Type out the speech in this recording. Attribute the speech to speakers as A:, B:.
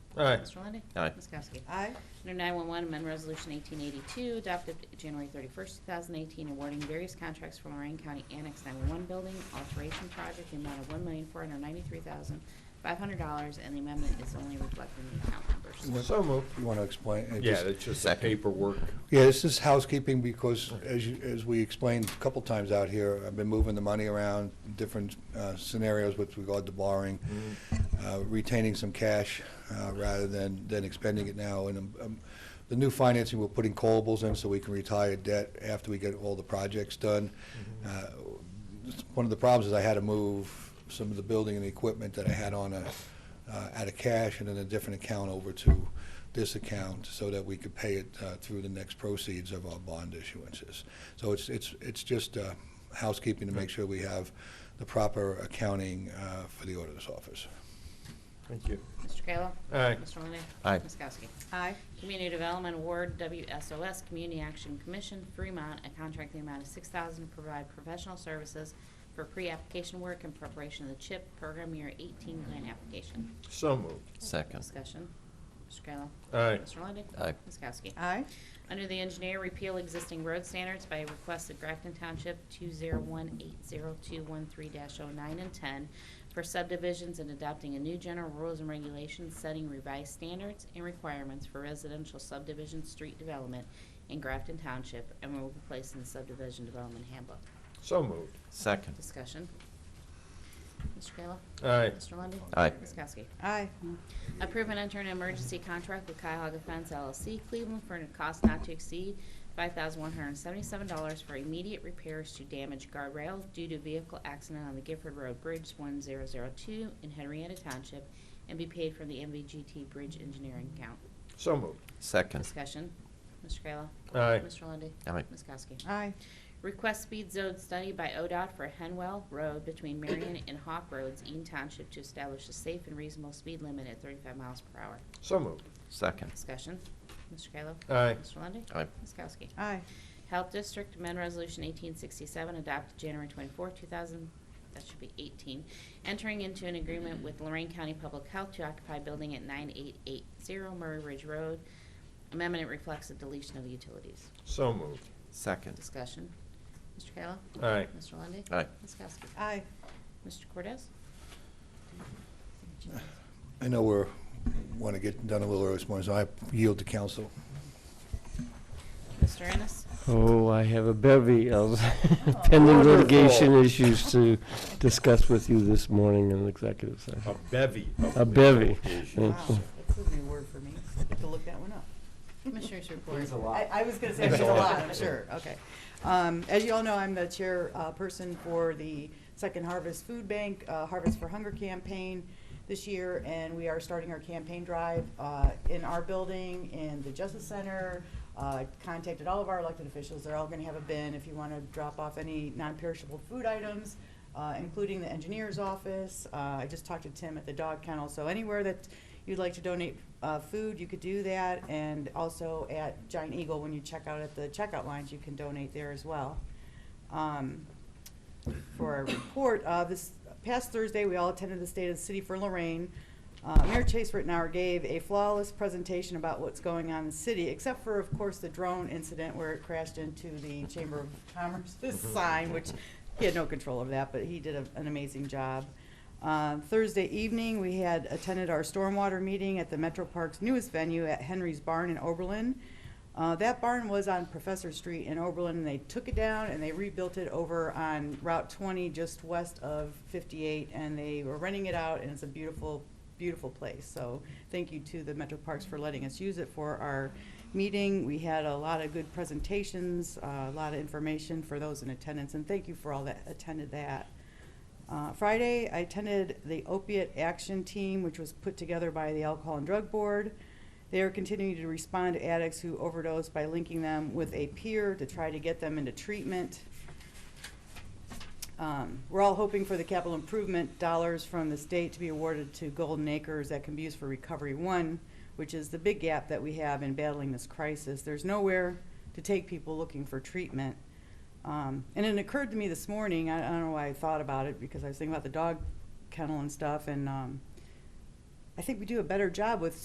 A: Aye.
B: Mr. Lundey.
C: Aye.
B: Ms. Kowski.
D: Aye.
B: Under 911, amend Resolution 1882, adopted January 31st, 2018, awarding various contracts for Lorraine County Annex 911 Building Alteration Project, the amount of $1,493,500, and the amendment is only reflected in the account numbers.
E: What-
A: So moved.
E: You want to explain? it
A: Yeah,
E: just-
A: it's just the
C: Second.
A: paperwork.
E: Yeah, this is housekeeping because as you, as we explained a couple times out here, I've been moving the money around, different uh, scenarios with regard to borrowing, uh, retaining some cash uh, rather than, than expending it now. And um, um, the new financing, we're putting callables in so we can retire debt after we get all the projects done. Uh, One of the problems is I had to move some of the building and the equipment that I had on a, uh, out of cash and then a different account over to this account so that we could pay it uh, through the next proceeds of our bond issuances. So it's, it's, it's just uh, housekeeping to make sure we have the proper accounting uh, for the auditor's office.
A: Thank you.
B: Mr. Kayla.
A: Aye.
B: Mr. Lundey.
C: Aye.
B: Ms. Kowski.
D: Aye.
B: Community Development Award, WSOS, Community Action Commission, Fremont, a contract in the amount of six thousand to provide professional services for pre-application work in preparation of the CHIP program year eighteen grant application.
A: So moved.
C: Second.
B: Discussion. Mr. Kayla.
A: Aye.
B: Mr. Lundey.
C: Aye.
B: Ms. Kowski.
D: Aye.
B: Under the engineer, repeal existing road standards by request of Grafton Township 2018023-09 and 10 for subdivisions and adopting a new general rules and regulations setting revised standards and requirements for residential subdivision street development in Grafton Township and will be placed in the subdivision development handbook.
A: So moved.
C: Second.
B: Discussion. Mr. Kayla?
A: Aye.
B: Mr. Lundey?
C: Aye.
B: Ms. Kowski?
D: Aye.
B: Approve and enter an emergency contract with Cuyahoga Fence LLC Cleveland for a cost not to exceed $5,177 for immediate repairs to damaged guardrails due to vehicle accident on the Gifford Road Bridge 1002 in Henrietta Township and be paid from the MVGT Bridge Engineering Account.
A: So moved.
C: Second.
B: Discussion. Mr. Kayla.
A: Aye.
B: Mr. Lundy.
C: Aye.
B: Ms. Kowski.
D: Aye.
B: Request speed zone study by ODOT for Henwell Road between Marion and Hawk Roads, Eaton Township, to establish a safe and reasonable speed limit at 35 miles per hour.
A: So moved.
C: Second.
B: Discussion. Mr. Kayla?
A: Aye.
B: Mr. Lundey?
C: Aye.
B: Ms. Kowski?
D: Aye.
B: Health District Amendment Resolution 1867 adopted January 24, 2000, that should be 18, entering into an agreement with Lorraine County Public Health to occupy building at 9880 Murray Ridge Road. Amendment reflects the deletion of utilities.
A: So moved.
C: Second.
B: Discussion. Mr. Kayla?
A: Aye.
B: Mr. Lundey?
C: Aye.
B: Ms. Kowski?
D: Aye.
B: Mr. Cordez?
E: I know we're, want to get done a little early this morning, so I yield to council.
B: Mr. Ennis?
F: Oh, I have a bevy of pending litigation
A: Wonderful.
F: issues to discuss with you this morning in executive
A: A
F: session.
A: bevy. of
F: A bevy.
A: litigation.
F: Mm.
D: Wow, that's a new word for me. I have to look that one up.
B: Commissioners report.
D: I, I was gonna say
A: There's
D: there's
A: a
D: a
A: lot.
D: lot, sure, okay. Um, as you all know, I'm the chair, uh, person for the Second Harvest Food Bank, uh, Harvest for Hunger campaign this year, and we are starting our campaign drive, uh, in our building, in the Justice Center. Uh, contacted all of our elected officials, they're all gonna have a bin if you wanna drop off any non-perishable food items, uh, including the engineer's office. Uh, I just talked to Tim at the dog kennel, so anywhere that you'd like to donate uh, food, you could do that, and also at Giant Eagle, when you check out at the checkout lines, you can donate there as well. Um, For our report, uh, this past Thursday, we all attended the State of the City for Lorraine. Uh, Mayor Chase Rittenhour gave a flawless presentation about what's going on in the city, except for, of course, the drone incident where it crashed into the Chamber of Commerce's sign, which he had no control of that, but he did a- an amazing job. Uh, Thursday evening, we had attended our stormwater meeting at the Metro Park's newest venue at Henry's Barn in Oberlin. Uh, That barn was on Professor Street in Oberlin, and they took it down and they rebuilt it over on Route 20, just west of 58, and they were renting it out, and it's a beautiful, beautiful place. So thank you to the Metro Parks for letting us use it for our meeting. We had a lot of good presentations, uh, a lot of information for those in attendance, and thank you for all that attended that. Uh, Friday, I attended the opiate action team, which was put together by the Alcohol and Drug Board. They are continuing to respond to addicts who overdose by linking them with a peer to try to get them into treatment. Um, We're all hoping for the capital improvement dollars from the state to be awarded to Golden Acres that can be used for Recovery One, which is the big gap that we have in battling this crisis. There's nowhere to take people looking for treatment. Um, and it occurred to me this morning, I, I don't know why I thought about it, because I was thinking about the dog kennel and stuff, and um, I think we do a better job with